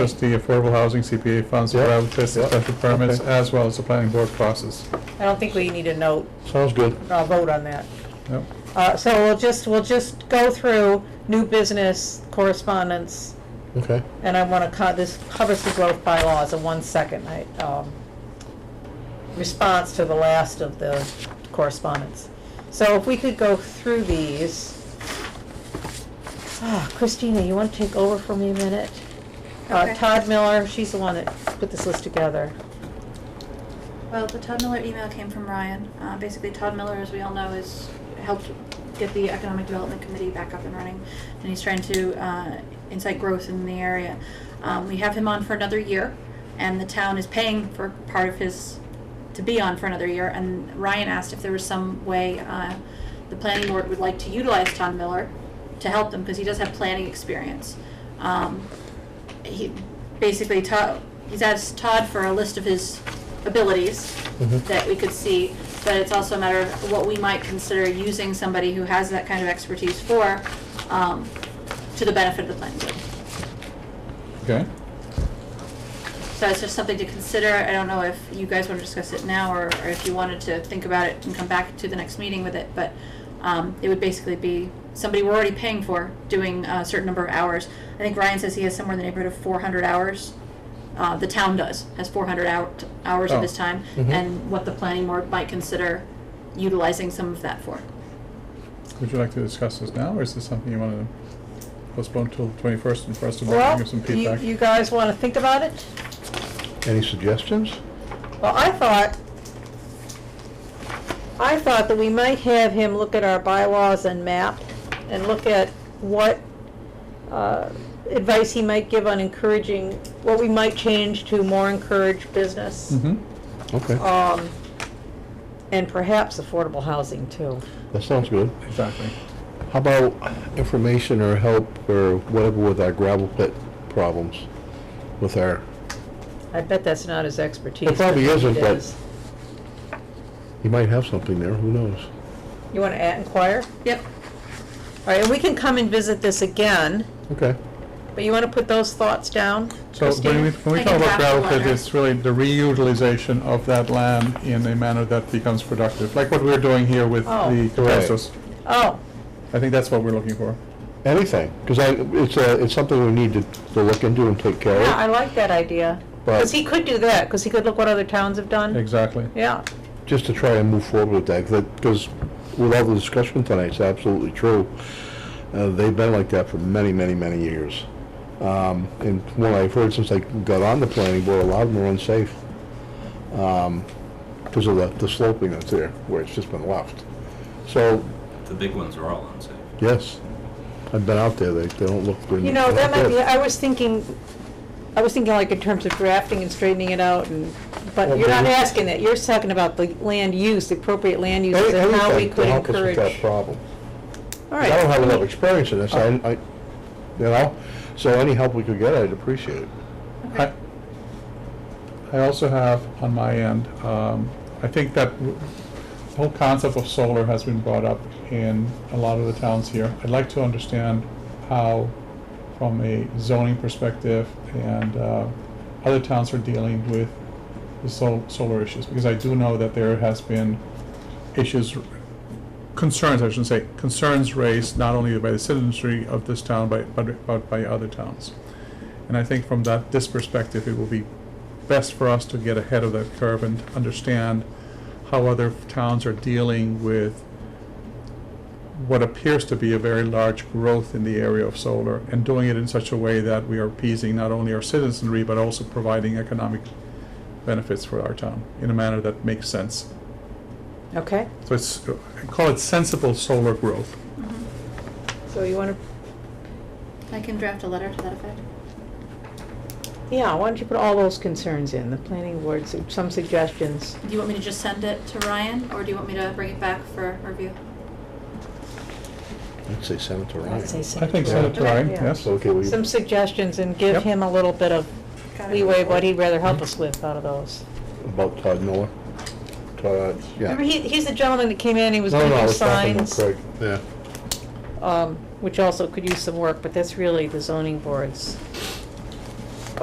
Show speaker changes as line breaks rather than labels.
just the affordable housing, CPA funds,
Yeah,
survival tests,
yeah,
special permits,
okay.
as well as the planning board process.
I don't think we need a note,
Sounds good.
a vote on that.
Yep.
Uh, so we'll just, we'll just go through new business correspondence,
Okay.
and I wanna co- this covers the growth bylaws in one second, I, um, response to the last of the correspondence. So if we could go through these. Ah, Christina, you wanna take over for me a minute? Uh,
Okay.
Todd Miller, she's the one that put this list together.
Well, the Todd Miller email came from Ryan. Uh, basically, Todd Miller, as we all know, is helped get the Economic Development Committee back up and running, and he's trying to uh, incite growth in the area. Um, we have him on for another year, and the town is paying for part of his to be on for another year. And Ryan asked if there was some way uh, the planning board would like to utilize Todd Miller to help them because he does have planning experience. Um, he basically Todd, he's asked Todd for a list of his abilities
Mhm.
that we could see, but it's also a matter of what we might consider using somebody who has that kind of expertise for, um, to the benefit of the planning board.
Okay?
So it's just something to consider. I don't know if you guys want to discuss it now or, or if you wanted to think about it and come back to the next meeting with it, but um, it would basically be somebody we're already paying for doing a certain number of hours. I think Ryan says he has somewhere in the neighborhood of 400 hours. Uh, the town does, has 400 hour, hours
Oh.
of his time,
Mhm.
and what the planning board might consider utilizing some of that for.
Would you like to discuss this now, or is this something you want to postpone till twenty-first and for us to
Well,
give some
you,
feedback?
you guys wanna think about it?
Any suggestions?
Well, I thought, I thought that we might have him look at our bylaws and map and look at what uh, advice he might give on encouraging, what we might change to more encourage business.
Mm-hmm.
Mhm.
Okay.
um, And perhaps affordable housing too.
That sounds good.
Exactly.
How about information or help or whatever with our gravel pit problems with our,
I bet that's not his expertise.
It probably
but
isn't,
it
but-
is.
you might have something there, who knows?
You wanna add, inquire?
Yep.
All right, and we can come and visit this again,
Okay.
but you wanna put those thoughts down?
So when we,
Christine?
when we
I
talk
can
about
draft a
gravel pit,
letter.
it's really the reutilization of that land in a manner that becomes productive, like what we're doing here with
Oh.
the
Right.
capacitors.
Oh,
I think that's what we're looking for.
Anything, because I, it's a, it's something we need to, to look into and take care
Yeah, I
of.
like that idea. Because he
But
could do that, because he could look what other towns have done.
Exactly.
Yeah,
just to try and move forward with that, because with all the discussion tonight, it's absolutely true. Uh, they've been like that for many, many, many years. Um, and from what I've heard since I got on the planning board, a lot of them are unsafe. Because of the, the sloping that's there, where it's just been left. So,
The big ones are all unsafe.
yes, I've been out there, they, they don't look good.
you know, that might be, I was thinking, I was thinking like in terms of drafting and straightening it out and, but
Well,
you're not
maybe-
asking that, you're talking about the land use, the appropriate land use, and how we
Anything to
could
help us with
encourage.
that problem.
All
I don't
right, Uh-huh.
have enough experience in this, I, I, you know, so any help we could get, I'd appreciate it.
I I also have on my end, um, I think that w- the whole concept of solar has been brought up in a lot of the towns here. I'd like to understand how, from a zoning perspective, and uh, other towns are dealing with the sol- solar issues, because I do know that there has been issues concerns, I shouldn't say, concerns raised not only by the citizenry of this town, but, but, but by other towns. And I think from that, this perspective, it will be best for us to get ahead of that curve and understand how other towns are dealing with what appears to be a very large growth in the area of solar, and doing it in such a way that we are appeasing not only our citizenry, but also providing economic benefits for our town in a manner that makes sense.
okay,
So it's, I call it sensible solar growth.
so you wanna,
Mm-hmm. I can draft a letter to that effect.
yeah, why don't you put all those concerns in, the planning board, su- some suggestions?
Do you want me to just send it to Ryan, or do you want me to bring it back for review?
I'd say Senator
I'd say
Ryan.
I think
send
Senator Ryan,
Yeah.
yes.
Okay, we,
Some suggestions and give
Yep.
him a little bit of
Got it.
leeway, of what he'd rather help us with out of those.
about Todd Miller? Todd, yeah.
Remember, he, he's the gentleman that came in, he was
No, no,
gonna
I
do
was talking to
signs.
Craig, yeah.
um, which also could use some work, but that's really the zoning board's